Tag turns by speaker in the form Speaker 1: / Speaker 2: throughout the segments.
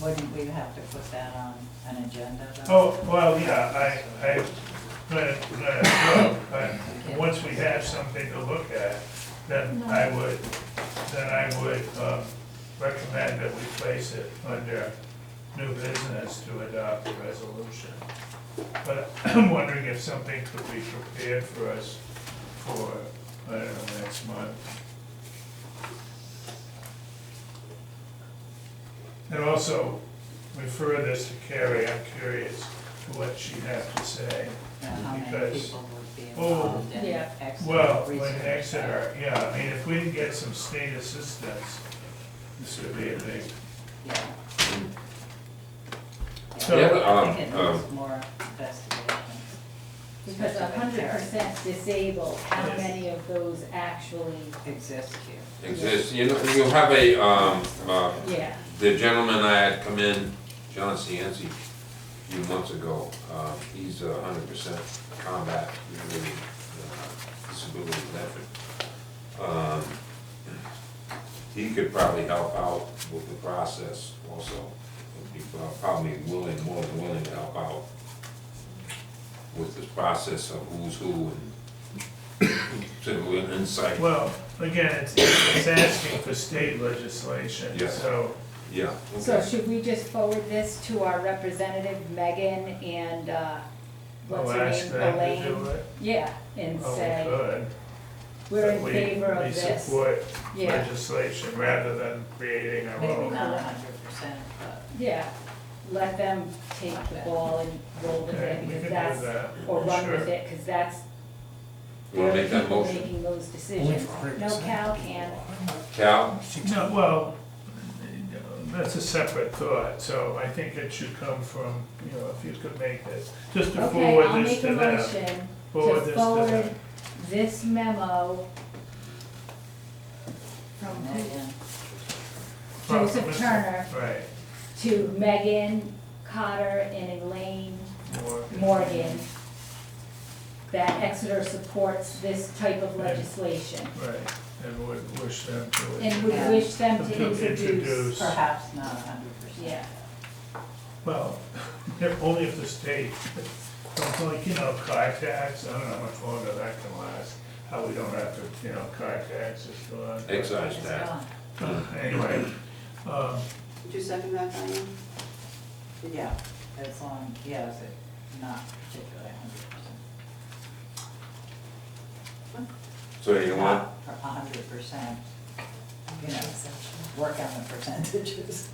Speaker 1: Wouldn't Um, we have to put that on an agenda though?
Speaker 2: Oh, well, yeah, I, I, but, but, but, once we have something to look at, then I would, then I would, um, recommend that we place it under new business to adopt a resolution. But I'm wondering if something could be prepared for us for, I don't know, next month. And also, refer this to Carrie, I'm curious to what she'd have to say.
Speaker 1: Now, How many
Speaker 2: because-
Speaker 1: people would be
Speaker 2: Oh.
Speaker 1: involved in
Speaker 3: Yeah.
Speaker 2: Well,
Speaker 1: Exeter
Speaker 2: when
Speaker 1: research?
Speaker 2: Exeter, yeah, I mean, if we can get some state assistance, this could be a big,
Speaker 1: Yeah.
Speaker 2: So-
Speaker 1: Yeah,
Speaker 2: Yeah,
Speaker 4: but,
Speaker 1: I
Speaker 4: um,
Speaker 1: think it
Speaker 4: um,
Speaker 1: needs more investigation.
Speaker 3: Because a hundred percent disabled, how
Speaker 2: Yes.
Speaker 3: many of those actually,
Speaker 1: Exists here.
Speaker 4: Exists, you know, you have a, um, uh,
Speaker 3: yeah,
Speaker 4: the gentleman I had come in, John Cianci, a few months ago, uh, he's a hundred percent combat related, uh, disability veteran. Um, He could probably help out with the process also, He'd be prob- probably willing, more than willing to help out with this process of who's who and sort of an insight,
Speaker 2: well, again, it's, it's asking for state legislation,
Speaker 4: Yeah.
Speaker 2: so,
Speaker 4: yeah.
Speaker 3: so
Speaker 4: okay.
Speaker 3: should we just forward this to our representative Megan and, uh,
Speaker 2: I'll
Speaker 3: what's her
Speaker 2: ask
Speaker 3: name,
Speaker 2: them to do
Speaker 3: Elaine?
Speaker 2: it.
Speaker 3: Yeah, and
Speaker 2: Oh, we
Speaker 3: say,
Speaker 2: could.
Speaker 3: we're in
Speaker 2: But we-
Speaker 3: favor
Speaker 2: we
Speaker 3: of this,
Speaker 2: support
Speaker 3: yeah,
Speaker 2: legislation rather than creating our
Speaker 1: Maybe
Speaker 2: own.
Speaker 1: not a hundred percent, but
Speaker 3: yeah, let them take the ball and roll with
Speaker 2: Okay,
Speaker 3: it,
Speaker 2: we could
Speaker 3: because
Speaker 2: do
Speaker 3: that's,
Speaker 2: that,
Speaker 3: or run
Speaker 2: sure.
Speaker 3: with it, because that's,
Speaker 4: Wanna
Speaker 3: they're
Speaker 4: make
Speaker 3: the
Speaker 4: that
Speaker 3: people
Speaker 4: motion?
Speaker 3: making those decisions. No, Cal can,
Speaker 4: Cal,
Speaker 2: No, well, that's a separate thought, so I think it should come from, you know, if you could make this, just to
Speaker 3: okay, I'll
Speaker 2: forward this
Speaker 3: make a
Speaker 2: to them.
Speaker 3: motion
Speaker 2: Forward this
Speaker 3: to
Speaker 2: to
Speaker 3: forward
Speaker 2: them.
Speaker 3: this memo from who-
Speaker 1: Megan,
Speaker 2: Well,
Speaker 3: Joseph
Speaker 2: Mr.
Speaker 3: Turner
Speaker 2: Right.
Speaker 3: to Megan Cotter and Elaine
Speaker 2: Morgan.
Speaker 3: Morgan that Exeter supports this type of legislation
Speaker 2: Right, and would wish them
Speaker 3: and
Speaker 2: to,
Speaker 3: would wish them to
Speaker 2: To
Speaker 3: introduce.
Speaker 2: introduce.
Speaker 1: perhaps not a hundred percent.
Speaker 3: Yeah,
Speaker 2: well, if- only if the state, it's like, you know, car tax, I don't know how much longer that can last, how we don't have to, you know, car tax is still on.
Speaker 4: excise
Speaker 1: It's
Speaker 4: tax.
Speaker 1: gone.
Speaker 2: Uh, Anyway, um,
Speaker 5: Did you second that, Diane?
Speaker 1: Yeah, as long, yeah, is it not particularly a hundred percent?
Speaker 4: So you want,
Speaker 1: Not A hundred percent, you know, work on the percentages.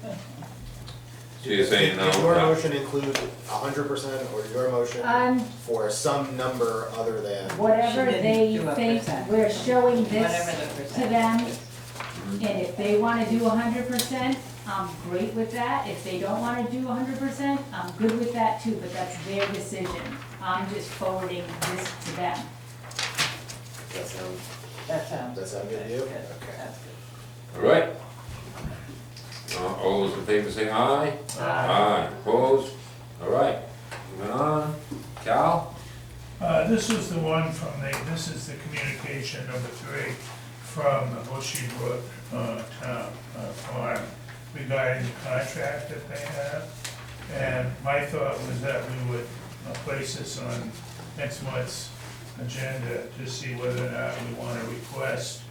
Speaker 4: so you're saying no?
Speaker 6: Did your
Speaker 4: no.
Speaker 6: motion include hundred percent or your motion
Speaker 3: um,
Speaker 6: for some number other than?
Speaker 3: whatever
Speaker 1: She didn't
Speaker 3: they
Speaker 1: do a
Speaker 3: think,
Speaker 1: percent.
Speaker 3: we're showing
Speaker 1: Whatever
Speaker 3: this
Speaker 1: the
Speaker 3: to
Speaker 1: percentage
Speaker 3: them
Speaker 1: is.
Speaker 3: And if they wanna do hundred percent, I'm great with that, if they don't wanna do hundred percent, I'm good with that too, but that's their decision. I'm just forwarding this to them.
Speaker 6: That sounds,
Speaker 1: That sounds.
Speaker 6: That sound good to you?
Speaker 1: That's
Speaker 6: Okay.
Speaker 1: That's good.
Speaker 4: All right. Uh, All those in favor say aye. Aye. Opposed? All right, moving on. Cal?
Speaker 2: Uh, this was the one from the, this is the communication number three from the Bushy Brook, uh, town, uh, farm regarding the contract that they have. And my thought was that we would uh, place this on next month's agenda to see whether or not we want to request.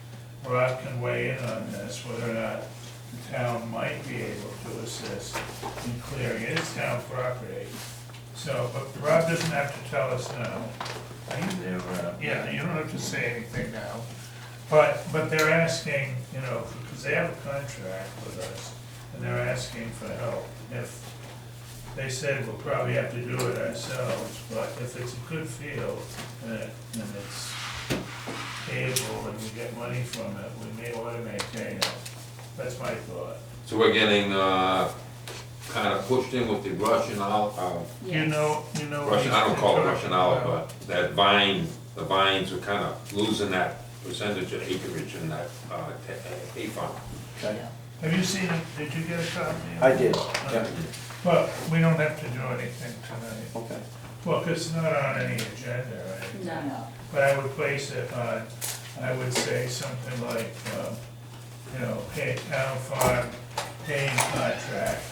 Speaker 2: Rob can weigh in on this, whether or not the town might be able to assist in clearing its town property. So, but Rob doesn't have to tell us now.
Speaker 4: uh,
Speaker 2: Yeah, you don't have to say anything now. But, but they're asking, you know, because they have a contract with us, and they're asking for help. If, they said we'll probably have to do it ourselves, but if it's a good field, uh, and it's able, and we get money from it, we may want to maintain it. That's my thought.
Speaker 4: So we're getting, uh, kind of pushed in with the Russian olive,
Speaker 2: You know, you know.
Speaker 4: uh,
Speaker 2: what
Speaker 4: Russian, I don't call it
Speaker 2: he's
Speaker 4: Russian
Speaker 2: talking
Speaker 4: olive,
Speaker 2: about.
Speaker 4: but that vine, the vines are kind of losing that percentage of acreage in that, uh, ta- uh, hay farm.
Speaker 2: Have you seen it? Did you get a copy? of
Speaker 7: I
Speaker 2: it?
Speaker 7: did,
Speaker 2: yeah. Well, we don't have to do anything tonight.
Speaker 7: okay.
Speaker 2: Well, 'cause it's not on any agenda, right?
Speaker 1: I
Speaker 3: No,
Speaker 1: know.
Speaker 2: But I would place it on, I would say something like, um, you know, pay town farm paying contract